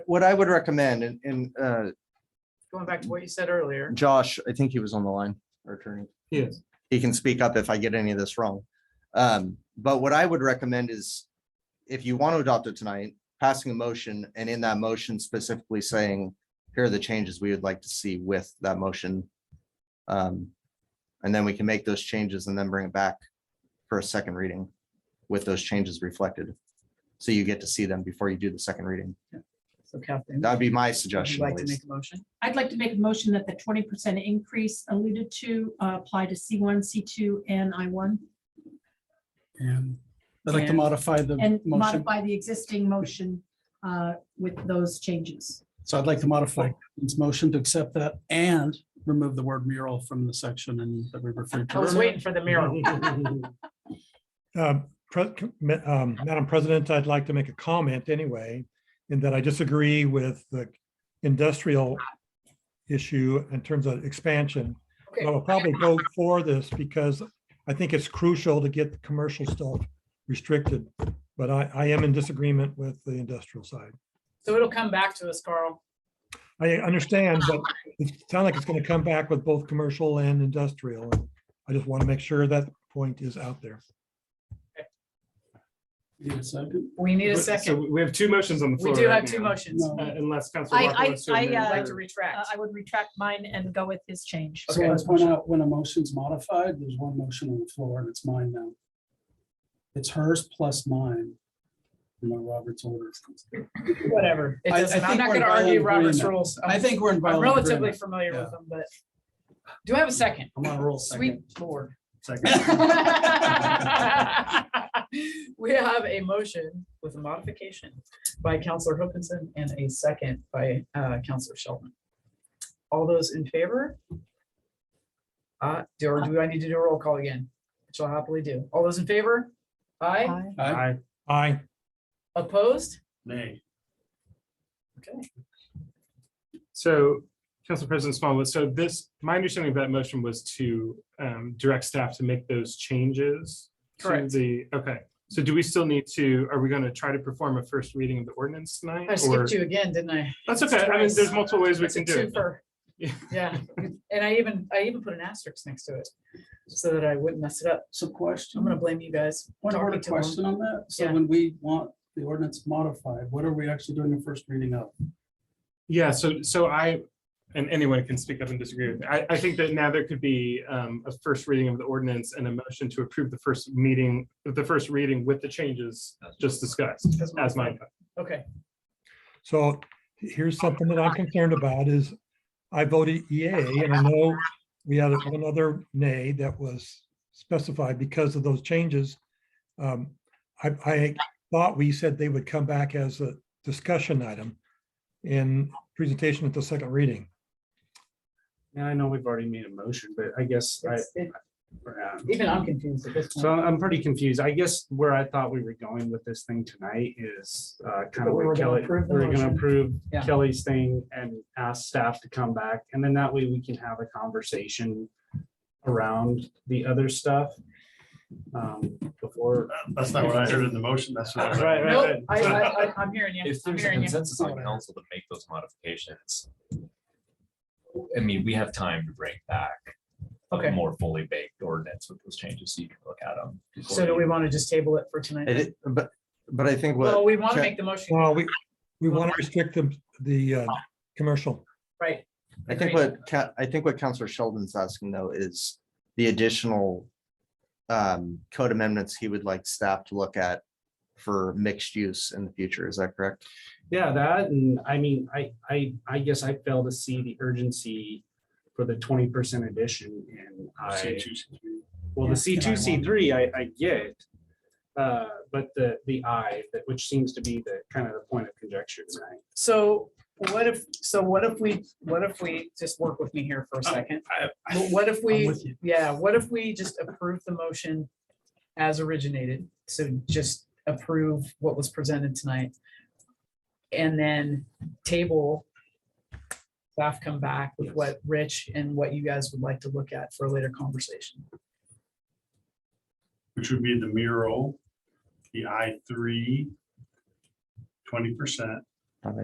what I would recommend, and, and, uh, Going back to what you said earlier. Josh, I think he was on the line, our attorney. Yes. He can speak up if I get any of this wrong. Um, but what I would recommend is if you want to adopt it tonight, passing a motion and in that motion specifically saying, here are the changes we would like to see with that motion. Um, and then we can make those changes and then bring it back for a second reading with those changes reflected. So you get to see them before you do the second reading. So Captain. That'd be my would you suggestion. Like at to least. make a motion? I'd like to make a motion that the twenty percent increase alluded to uh, apply to C one, C two, and I one, And I'd like to And- modify the and motion. modify the existing motion uh, with those changes. So I'd like to modify this motion to accept that and remove the word mural from the section and that we referred to. I was earlier. waiting for the mural. Um, Pre- Ma- um, Madam President, I'd like to make a comment anyway, in that I disagree with the industrial issue in terms of expansion. Okay. I will probably vote for this because I think it's crucial to get the commercial stuff restricted. But I, I am in disagreement with the industrial side. So it'll come back to us, Carl. I understand, but it sounds like it's going to come back with both commercial and industrial. I just want to make sure that point is out there. Need a second? We need a So second. We have two motions on the We floor. do right have two now, motions. No. I'd uh, Unless Council I- Walker I- wants to. I, amend uh, like it. to Uh, retract. I would retract mine and go with his change. So Okay. let's point out when a motion's modified, there's one motion on the floor and it's mine now. It's hers plus mine. You know, Robert's order. Whatever. It I- I doesn't, I'm think not we're gonna in violent argue Robert's agreement. rules. I I'm- think we're in. I'm violent relatively agreement. familiar Yeah. with them, but do I have a second? I'm on a roll Sweet second. lord. Second. We have a motion with a modification by Counselor Hopkinson and a second by uh, Counselor Sheldon. All those in favor? Uh, do, or do I need to do a roll call again? Which I'll happily do. All those in favor? Aye. Aye. Aye. Aye. Opposed? So, Council President Smallwood, so this, my understanding of that motion was to um, direct staff to make those changes. to Correct. The, okay, so do we still need to, are we going to try to perform a first reading of the ordinance tonight? I or- skipped you again, didn't I? That's okay. I mean, there's multiple ways we It's a can do it. twofer. Yeah. Yeah, and I even, I even put an asterisk next to it so that I wouldn't mess it up. So question. I'm gonna blame you guys. One Don't order wait too long. question on that. So Yeah. when we want the ordinance modified, what are we actually doing the first reading of? Yeah, so, so I, and anyone can speak up and disagree with me. I, I think that now there could be um, a first reading of the ordinance and a motion to approve the first meeting, the first reading with the changes just discussed As as my. Okay, So here's something that I'm concerned about is I voted yay, and I know we had one other nay that was specified because of those changes. Um, I, I thought we said they would come back as a discussion item in presentation at the second reading. And I know we've already made a motion, but I guess I, It's- it- um, even I'm confused at this so point. I'm pretty confused. I guess where I thought we were going with this thing tonight is kind But of we were where gonna Kelly, approve the we're going motion. to approve Yeah. Kelly's thing and ask staff to come back. And then that way we can have a conversation around the other stuff um, before. That's not what I heard in the motion. That's what I heard. Right, Nope, I, I, I- I'm hearing you. If I'm there's a hearing you. consensus on council to make those modifications. I mean, we have time to bring back Okay. a more fully baked ordinance with those changes, so you can look at them. So do we want to just table it for It tonight? is- But, but I think Well, what, we want to check. make the motion, Well, we, we want to restrict the, the uh, commercial. right? I think Agreed. what, Ca- I think what Counselor Sheldon's asking though is the additional um, code amendments he would like staff to look at for mixed use in the future. Is that correct? Yeah, that, and I mean, I, I, I guess I fail to see the urgency for the twenty percent addition and I. Well, Yeah. the C two, C three, I, I get. Uh, but the, the I, that, which seems to be the kind of the point of conjecture, right? So what if, so what if we, what if we, just work with me here for a second? But What if I'm we, with you. yeah, what if we just approve the motion as originated? So just approve what was presented tonight. And then table. Staff come back with what Rich and what you guys would like to look at for a later conversation. Which would be the mural, the I three, twenty percent,